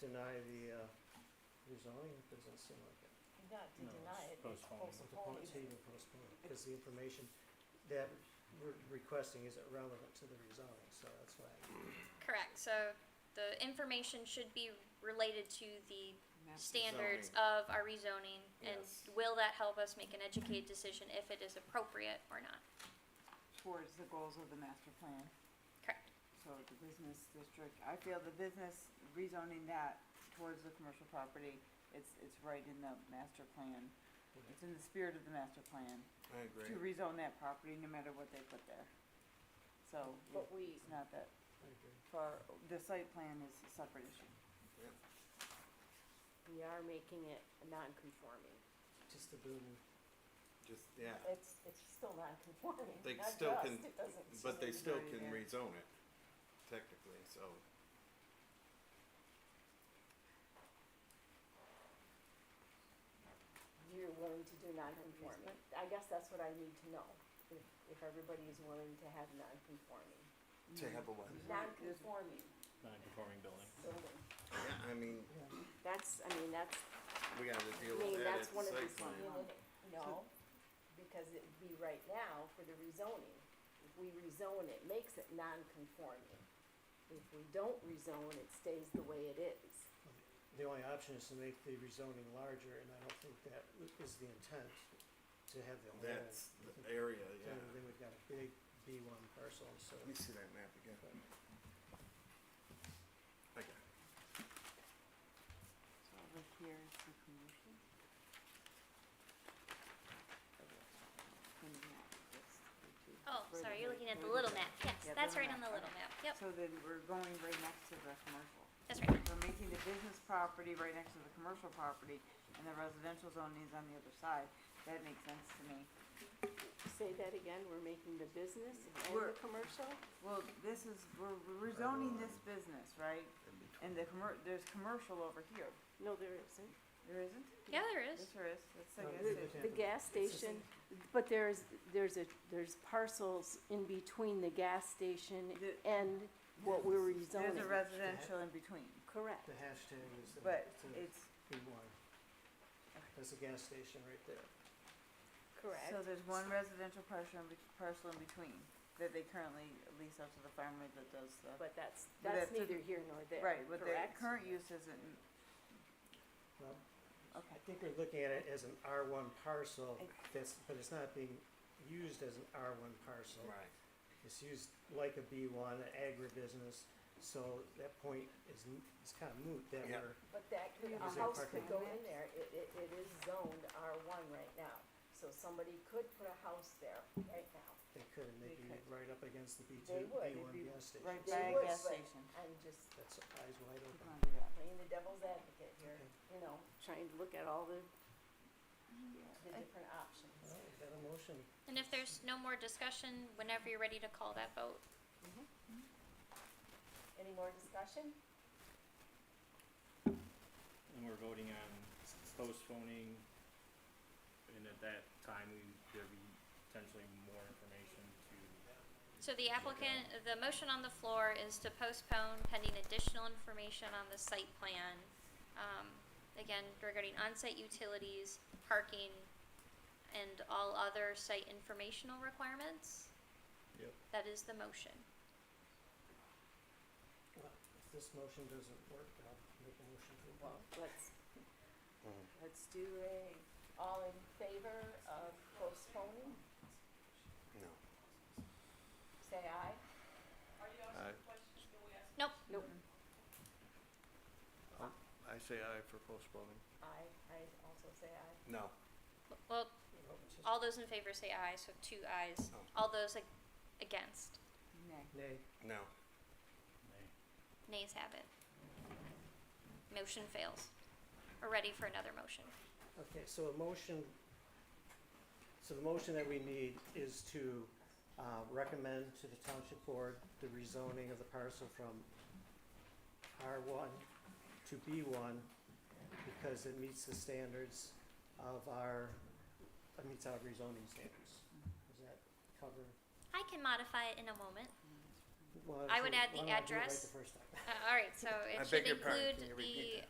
deny the, uh, rezoning, it doesn't seem like it. Not to No, deny it's it, it's postponed. It's a po- postponed. It's even postponed, because the information that we're requesting is irrelevant to the rezoning, so that's why. Correct, so the information should be related to the standards Zoning. of our rezoning, and Yes. will that help us make an educated decision if it is appropriate or not? towards the goals of the master plan. Correct. So the business district, I feel the business rezoning that towards the commercial property, it's, it's right in the master plan. It's in the spirit of the master plan I to agree. rezone that property no matter what they put there. So But we, it's not that I agree. far, the site plan is a separate issue. we are making it non-conforming. Just the building, Just, yeah, It's, it's still non-conforming, They not still to us, can- it doesn't. but they it's still already can there. rezone it technically, so. You're willing to do non-conforming. I guess that's what I need to know, if, if everybody is willing to have non-conforming. To have a what? Non-conforming non-conforming building. building. Yeah, I mean, That's, I mean, that's, we gotta I deal mean, with that at that's one of the, site plan. plan. you know, because it'd be right now for the rezoning. If we rezone it, makes it non-conforming. If we don't rezone, it stays the way it is. the only option is to make the rezoning larger, and I don't think that is the intent, to have the whole. That's the area, yeah. Then then we've got a big B one parcel, so. Let me see that map again. I got it. So over here is the commercial. And that, that's the two. Oh, Where sorry, the- you're looking at the where little map, yes, Yeah, that's little right on the map. little map, yep, So then we're going right next to the commercial. that's right, We're making the business property right next to the commercial property, and the residential zone is on the other side. That makes sense to me. Say that again, we're making the business and We're- the commercial? Well, this is, we're we're rezoning this business, right? And the commer, there's commercial over here. No, there isn't. There isn't? yeah, there is. Yes, there is. That's No, it like, that's isn't. it. The gas station, but there's, there's a, there's parcels in between the gas station The- and what we're There's a rezoning. residential in between, Correct. The hashtag is the, but it's a it's, B one. That's a gas station right there. so there's one residential parcel in, bet- parcel in between that they currently lease out to the farmer that does the. But that's, But that's that's a- neither here nor there, Right, but their correct? current use isn't, Well, I okay. think we're looking at it as an R one parcel, I- that's, but it's not being used as an R one parcel. Right. It's used like a B one, an agribusiness, so that point is, n- it's kind of moot that Yeah. we're, But that could, a Is there house could parking? go in there, it, it, it is zoned R one right now, so somebody could put a house there right now. they could, and they'd They be could. right up against the B They two, B would. They'd one be gas station. Right They by a would, gas but- station. I'm just That's eyes wide We're open. gonna do that. playing the devil's advocate here, you know, trying to look at all the, the I- different options. Well, we've got a motion, And if there's no more discussion, whenever you're ready to call that vote, Any more discussion? And we're voting on s- postponing, and at that time, we, there'd be potentially more information to. So the applicant, the motion on the floor is to postpone pending additional information on the site plan. Um, again, regarding on-site utilities, parking, and all other site informational requirements. Yep. That is the motion. well, if this motion doesn't work, I'll make a motion to. Well, let's, Mm-hmm. let's do a, all in favor of postponing, No. say aye. Aye. Nope, Nope. I say aye for postponing. Aye, I also say aye. No. Well, well, it's just- all those in favor say aye, so two ayes. Oh. All those ag- against, Nay. Nay, No. Nay. nays have it. Motion fails. We're ready for another motion. Okay, so a motion, so the motion that we need is to uh, recommend to the township board the rezoning of the parcel from R1 to B1 because it meets the standards of our, it meets our rezoning standards. Does that cover? I can modify it in a moment. Well, I would so add the why don't I do it right address. the first time? Uh, all right, so I it should beg Uh, your pardon, include can you repeat the that?